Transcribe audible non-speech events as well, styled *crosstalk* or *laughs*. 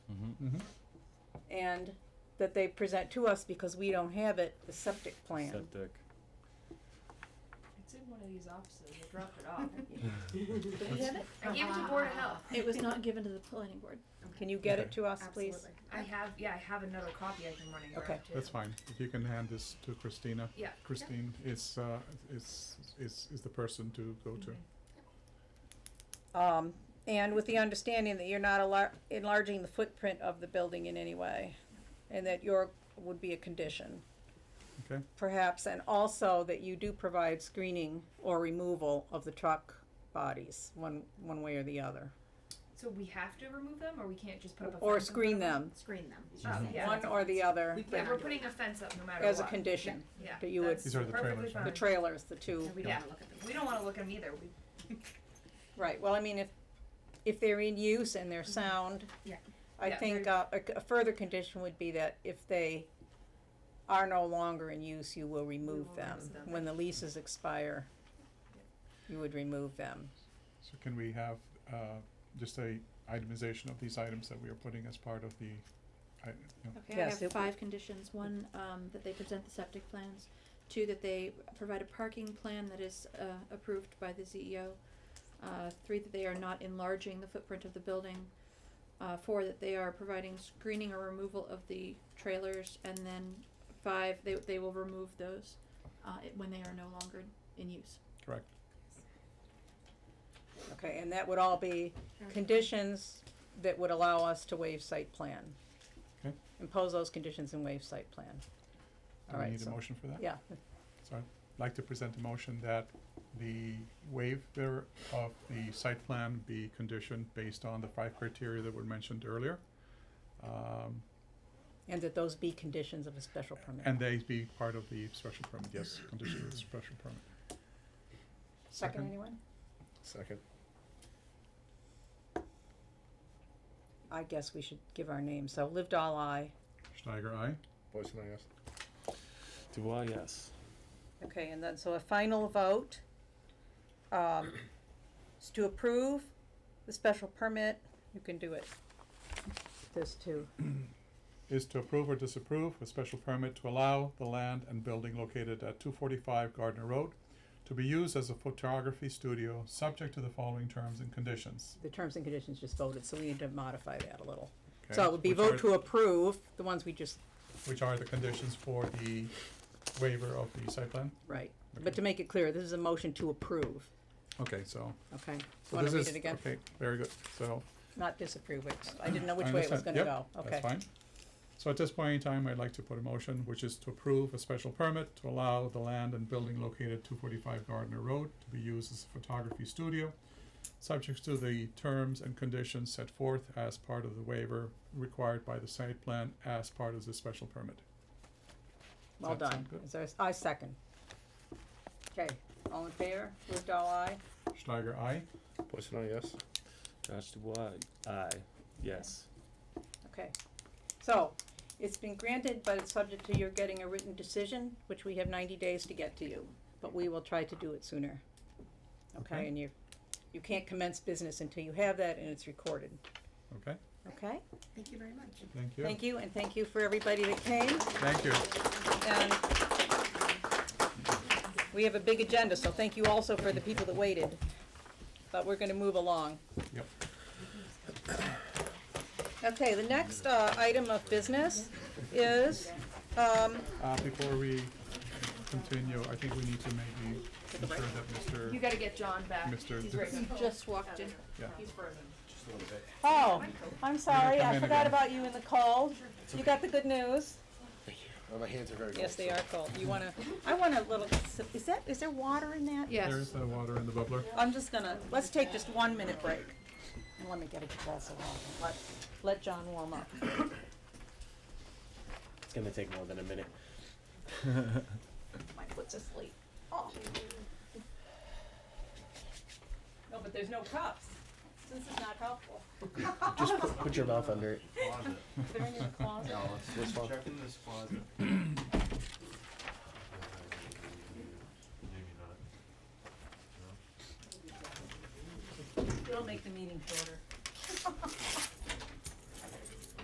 Mm-hmm. Mm-hmm. and that they present to us because we don't have it, the septic plan. Septic. It's in one of these offices, I dropped it *laughs* off. Do we have it? I gave it to Board of Health. It was not given to the planning board. Can you get it Okay. to us, please? Absolutely. I have, yeah, I have another copy I can run and grab Okay. too. That's fine. If you can hand this to Christina. Yeah. Christine is, uh, is, is, is the person to go to. Okay. Um, and with the understanding that you're not alar- enlarging the footprint of the building in any way, and that your would be a condition, Okay? perhaps, and also that you do provide screening or removal of the truck bodies, one, one way or the other. So we have to remove them, or we can't just put up a fence? Or in screen front them, Screen them. of Oh, yeah. one or the other, Yeah, we're cannot do putting a fence up no matter what. as a condition, Yeah. that you would- that's These are the perfectly trailers, right? the fine. trailers, the two. And we don't Yeah. wanna look at them. We don't wanna look at them either, we, Right, well, I mean, if, if they're in use and they're sound. Yeah. I Yeah, think very- uh, a, c- a further condition would be that if they are no longer in use, you will remove will them. remove them. When the leases expire, you would remove them. So can we have, uh, just a itemization of these items that we are putting as part of the, I, you know, Okay, I Yes, it- have five conditions, one, um, that they present the septic plans, two, that they provide a parking plan that is, uh, approved by the CEO, uh, three, that they are not enlarging the footprint of the building, uh, four, that they are providing screening or removal of the trailers, and then five, they, they will remove those, uh, it- when they are no longer in use. correct? Okay, and that would all be Mm-hmm. conditions that would allow us to waive site plan. Okay. Impose those conditions and waive site plan. Do we Alright, need a so- motion for that? Yeah, So I'd like to present a motion that the waiver of the site plan be conditioned based on the five criteria that were mentioned earlier. Um, and that those be conditions of a special permit. and they be part of the special permit, yes, condition of the special permit. Second, second. anyone? Second. I guess we should give our names. So lived all I. Steiger, aye? Boyce and I asked. Do I, yes. Okay, and then, so a final vote, um, is to approve the special permit, you can do it. This too. is to approve or disapprove a special permit to allow the land and building located at two forty-five Gardner Road to be used as a photography studio, subject to the following terms and conditions. The terms and conditions just voted, so we need to modify that a little. So okay? it would be Which vote are- to approve, the ones we just, Which are the conditions for the waiver of the site plan? right, but to make it clear, this is a motion to approve, Okay, so. okay? so Want this to read is- it again? Okay, very good, so. Not disapprove it, I didn't know I which way it was understand. gonna go, Yep, okay? That's fine. So at this point in time, I'd like to put a motion, which is to approve a special permit to allow the land and building located two forty-five Gardner Road to be used as a photography studio, subject to the terms and conditions set forth as part of the waiver required by the site plan as part of the special permit. Well That done, sound good? is there, a s- I second. Okay, all in favor, lived all I, Steiger, aye? Boyce and I yes. Josh, do I, aye, yes. Okay, so, it's been granted, but it's subject to your getting a written decision, which we have ninety days to get to you, but we will try to do it sooner. Okay, Okay. and you, you can't commence business until you have that and it's recorded, Okay, okay? Thank you very much. thank you. Thank you, and thank you for everybody that came, Thank you. and we have a big agenda, so thank you also for the people that waited, but we're gonna move along. Yep. Okay, the next, uh, item of business is, um, Uh, before we continue, I think we need to maybe ensure that you Mr., gotta get John back, Mr. he's right *laughs* now. Just walked in. yeah. He's frozen. Oh, I'm sorry, come I in forgot again. about you in the cold. You got the good news? Well, Oh, my hands are very Yes, they are cold. You wanna, I want a little, is that, is there water in that? Yes. There's the uh, water in the bubbler. I'm just gonna, let's take just one minute break. And let me get a glass of water. Let, let John warm up. It's gonna take more than a minute. My foot's asleep. Oh. No, but there's no cups. This is not helpful. Just put, put your mouth under it. closet. They're in your closet. No, This it's one? check in this closet. Maybe not. It'll make the meeting shorter.